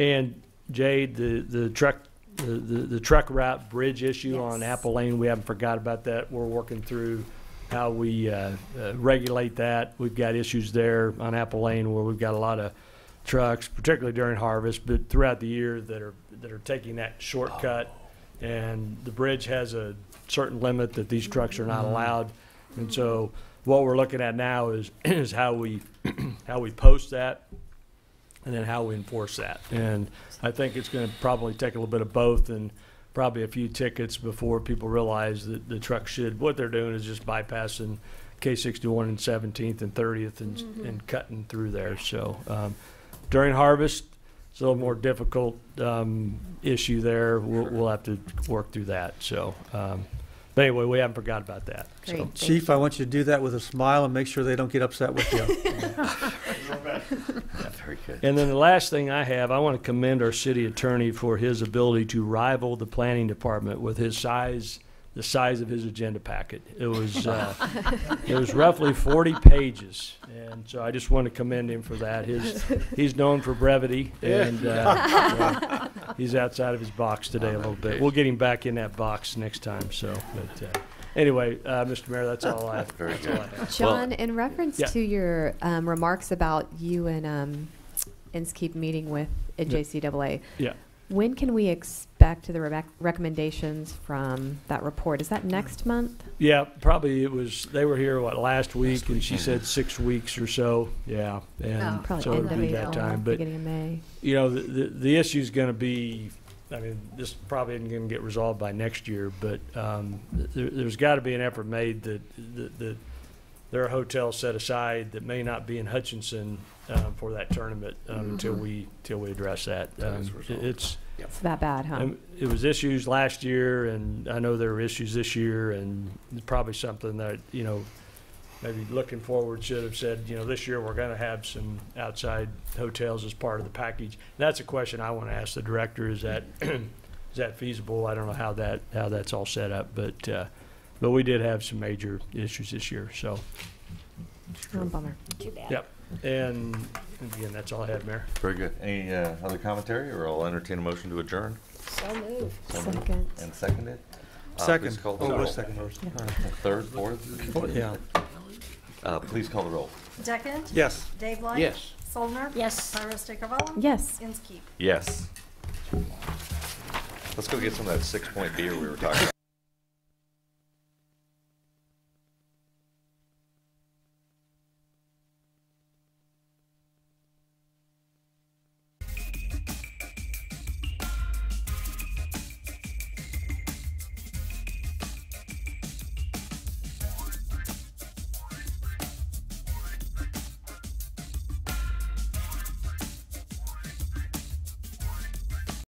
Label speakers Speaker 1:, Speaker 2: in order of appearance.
Speaker 1: And Jade, the, the truck, the, the the truck route bridge issue on
Speaker 2: Yes.
Speaker 1: Apple Lane, we haven't forgot about that. We're working through how we uh, uh, regulate that. We've got issues there on Apple Lane where we've got a lot of trucks, particularly during harvest, but throughout the year that are, that are taking that shortcut. And the bridge has a certain limit that these trucks are not allowed. And so what we're looking at now is, is how we, how we post that and then how we enforce that. And I think it's gonna probably take a little bit of both and probably a few tickets before people realize that the truck should, what they're doing is just bypassing K sixty-one and Seventeenth and Thirtieth and, and cutting through there, so, um, during harvest, it's a little more difficult, um, issue there, we'll, we'll have to work through that, so, um, but anyway, we haven't forgot about that, so.
Speaker 2: Great.
Speaker 3: Chief, I want you to do that with a smile and make sure they don't get upset with you.
Speaker 4: Very good.
Speaker 1: And then the last thing I have, I want to commend our city attorney for his ability to rival the planning department with his size, the size of his agenda packet. It was, uh, it was roughly forty pages, and so I just want to commend him for that. His, he's known for brevity, and, uh, he's outside of his box today a little bit. We'll get him back in that box next time, so, but, uh, anyway, uh, Mr. Mayor, that's all I,
Speaker 4: Very
Speaker 1: that's all I
Speaker 4: good.
Speaker 1: have.
Speaker 2: John, in reference
Speaker 1: Yeah.
Speaker 2: to your um, remarks about you and um, Inskeep meeting with at
Speaker 1: Yeah.
Speaker 2: JCAA,
Speaker 1: Yeah.
Speaker 2: when can we expect the re- recommendations from that report? Is that
Speaker 1: Mm.
Speaker 2: next month?
Speaker 1: Yeah, probably it was, they were here, what, last week, and she said six weeks or so, yeah. And
Speaker 2: Probably
Speaker 1: so
Speaker 2: end
Speaker 1: it'll
Speaker 2: of
Speaker 1: be
Speaker 2: April,
Speaker 1: that time, but,
Speaker 2: beginning of May.
Speaker 1: you know, the, the, the issue's gonna be, I mean, this probably isn't gonna get resolved by next year, but, um, there, there's gotta be an effort made that, that, that there are hotels set aside that may not be in Hutchinson, um, for that tournament, um, until we, till we address that.
Speaker 4: That
Speaker 1: Um,
Speaker 4: is
Speaker 1: it-
Speaker 4: resolved.
Speaker 1: It's,
Speaker 2: It's that bad, huh?
Speaker 1: um, It was issues last year, and I know there were issues this year, and it's probably something that, you know, maybe looking forward should have said, you know, this year we're gonna have some outside hotels as part of the package. That's a question I wanna ask the director, is that, is that feasible? I don't know how that, how that's all set up, but, uh, but we did have some major issues this year, so.
Speaker 2: Oh, bummer.
Speaker 1: And, and again, that's all I had, Mayor.
Speaker 4: Very good. Any uh, other commentary, or I'll entertain a motion to adjourn?
Speaker 5: So moved.
Speaker 4: So moved
Speaker 2: Second.
Speaker 4: And seconded? Uh,
Speaker 3: Second.
Speaker 4: please call the
Speaker 3: Oh,
Speaker 4: roll.
Speaker 3: wait, second first.
Speaker 2: Yeah.
Speaker 3: All right.
Speaker 4: Third, fourth?
Speaker 3: Yeah.
Speaker 4: Uh, Please call the roll.
Speaker 6: Deckent?
Speaker 3: Yes.
Speaker 6: Dave Light?
Speaker 4: Yes.
Speaker 6: Soldner?
Speaker 5: Yes.
Speaker 6: Pyrus Dickavall?
Speaker 2: Yes.
Speaker 6: Inskeep?
Speaker 4: Yes. Let's go get some of that six-point beer we were talking about.